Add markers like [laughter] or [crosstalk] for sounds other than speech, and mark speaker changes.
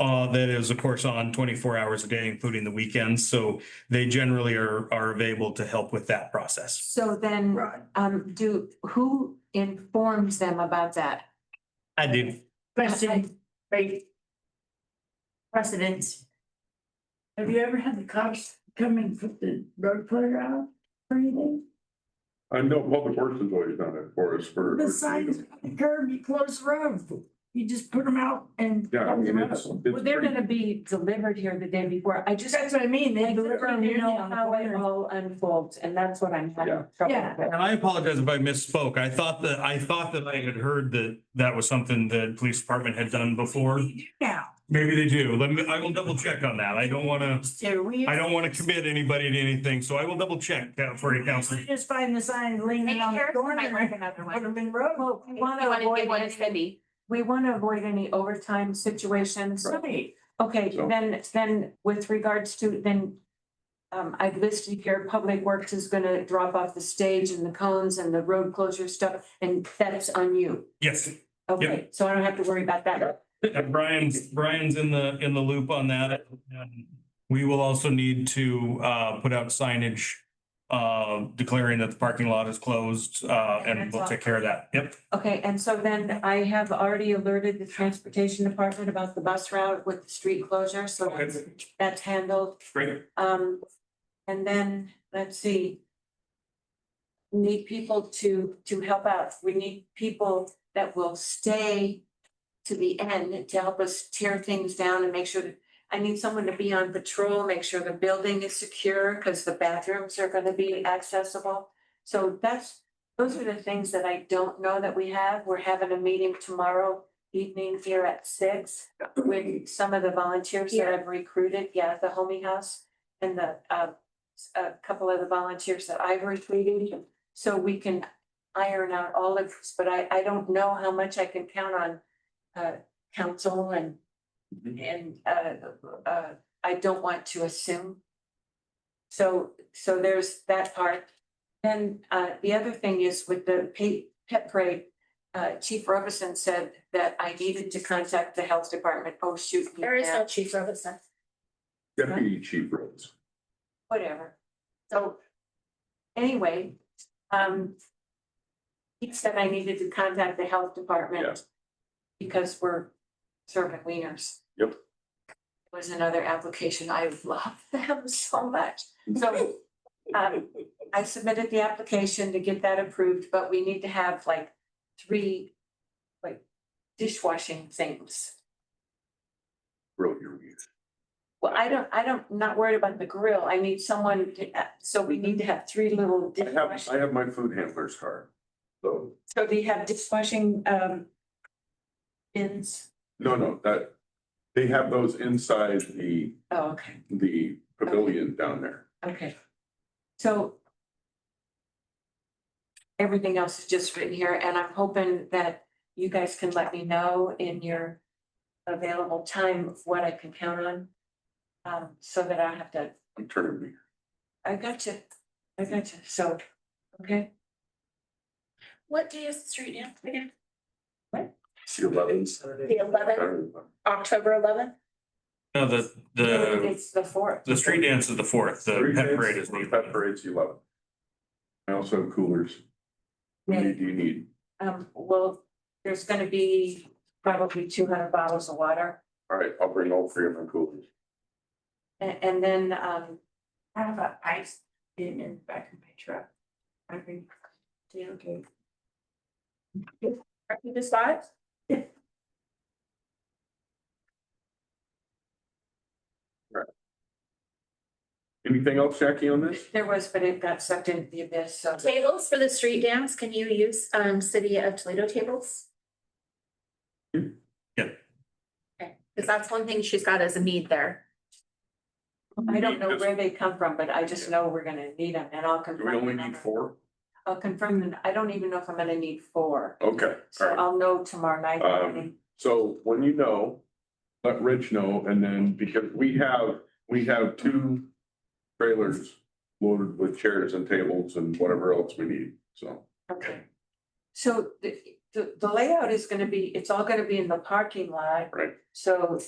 Speaker 1: Uh, that is, of course, on twenty-four hours a day, including the weekends, so they generally are, are available to help with that process.
Speaker 2: So then,
Speaker 3: Right.
Speaker 2: um, do, who informs them about that?
Speaker 1: I do.
Speaker 3: Question, right? Precedent. Have you ever had the cops come and put the road clear out or anything?
Speaker 4: I know Public Works has always done it for us for.
Speaker 3: The signs, on the curb, you close the road, you just put them out and.
Speaker 4: Yeah, I
Speaker 3: close
Speaker 4: mean,
Speaker 3: 'em
Speaker 4: it's,
Speaker 3: out.
Speaker 2: Well,
Speaker 4: it's
Speaker 2: they're
Speaker 4: pretty,
Speaker 2: gonna be delivered here the day before. I just.
Speaker 3: That's what I mean,
Speaker 2: I
Speaker 3: they
Speaker 2: don't
Speaker 3: deliver them
Speaker 2: even
Speaker 3: usually
Speaker 2: know
Speaker 3: on the
Speaker 2: how it
Speaker 3: corner.
Speaker 2: all unfolds, and that's what I'm having
Speaker 4: Yeah.
Speaker 2: trouble
Speaker 3: Yeah.
Speaker 2: with.
Speaker 1: And I apologize if I misspoke. I thought that, I thought that I had heard that that was something that police department had done before.
Speaker 3: We do Now,
Speaker 1: Maybe they do. Let me, I will double check on that. I don't want to,
Speaker 3: so we.
Speaker 1: I don't want to commit anybody to anything, so I will double check that for you, council.
Speaker 3: We Just find the sign leaning
Speaker 5: Maybe
Speaker 3: on the
Speaker 5: Harrison
Speaker 3: corner.
Speaker 5: might work another one.
Speaker 3: Put 'em in road.
Speaker 2: Well, we wanna avoid any, we wanna avoid any overtime situations.
Speaker 3: Right.
Speaker 2: Okay,
Speaker 4: So-
Speaker 2: then, then with regards to, then. Um, I've listed here, Public Works is gonna drop off the stage and the cones and the road closure stuff, and that's on you.
Speaker 1: Yes,
Speaker 2: Okay, so I don't have to worry about that.
Speaker 1: and Brian's, Brian's in the, in the loop on that. And We will also need to uh, put out signage uh, declaring that the parking lot is closed, uh, and we'll take care of that. Yep.
Speaker 2: Okay, and so then I have already alerted the transportation department about the bus route with the street closure, so
Speaker 1: Okay.
Speaker 2: that's handled.
Speaker 1: Great.
Speaker 2: Um, and then, let's see. Need people to, to help out. We need people that will stay to the end to help us tear things down and make sure that, I need someone to be on patrol, make sure the building is secure, because the bathrooms are gonna be accessible. So that's, those are the things that I don't know that we have. We're having a meeting tomorrow evening here at six with some of the volunteers that I've recruited, yeah, the homie house and the, uh, s- a couple of the volunteers that I've retweeted, so we can iron out all of this, but I, I don't know how much I can count on, uh, council and, and, uh, uh, I don't want to assume. So, so there's that part. Then, uh, the other thing is with the pe- pet parade, uh, Chief Robinson said that I needed to contact the health department. Oh, shoot. he
Speaker 5: There is
Speaker 2: can't.
Speaker 5: no chief Robinson.
Speaker 4: deputy chief roads.
Speaker 2: whatever. So anyway, um, he said I needed to contact the health
Speaker 4: Yeah.
Speaker 2: department because we're serving wieners.
Speaker 4: Yep.
Speaker 2: Was another application. I love [laughs] them so much. So um, I submitted the application to get that approved, but we need to have like three like dishwashing things.
Speaker 4: Road your weeds.
Speaker 2: Well, I don't, I don't, not worried about the grill. I need someone to, uh, so we need to have three little
Speaker 4: I have,
Speaker 2: dishwashing.
Speaker 4: I have my food handler's card. So,
Speaker 2: So do you have dishwashing, um, bins?
Speaker 4: no, no, that, they have those inside the,
Speaker 2: Oh, okay,
Speaker 4: the pavilion down there.
Speaker 2: okay. So everything else is just written here and I'm hoping that you guys can let me know in your available time of what I can count on. Um, so that I have to,
Speaker 4: I'm turning me.
Speaker 2: I got you, I got you, so, okay,
Speaker 5: What day is the street now? Again,
Speaker 4: See elevens.
Speaker 5: the eleventh, October eleventh?
Speaker 1: No, the, the,
Speaker 2: it's the fourth.
Speaker 1: the street dance is the fourth, the pet parade is the.
Speaker 4: Pet parade's eleven. I also have coolers. What do you- do you need?
Speaker 2: Um, well, there's gonna be probably two hundred bottles of water.
Speaker 4: All right, I'll bring all three of my coolers.
Speaker 2: And, and then, um,
Speaker 3: I have a ice in in the back of my truck. I mean, yeah, okay.
Speaker 5: Are you just live?
Speaker 4: Anything else, Jackie, on this?
Speaker 2: there was, but it got sucked into the abyss, so.
Speaker 5: Tables for the street dance, can you use um city of Toledo tables?
Speaker 1: Yeah.
Speaker 5: Okay, because that's one thing she's got as a need there.
Speaker 2: I don't know where they come from, but I just know we're gonna need them and I'll
Speaker 4: Do
Speaker 2: confirm.
Speaker 4: we only
Speaker 2: the
Speaker 4: need
Speaker 2: number.
Speaker 4: four?
Speaker 2: I'll confirm, the- I don't even know if I'm gonna need four,
Speaker 4: Okay, all
Speaker 2: so
Speaker 4: right.
Speaker 2: I'll know tomorrow night.
Speaker 4: Um, So when you know, let Rich know, and then because we have, we have two trailers loaded with chairs and tables and whatever else we need, so.
Speaker 2: Okay. So the, the, the layout is gonna be, it's all gonna be in the parking lot.
Speaker 4: Right.
Speaker 2: So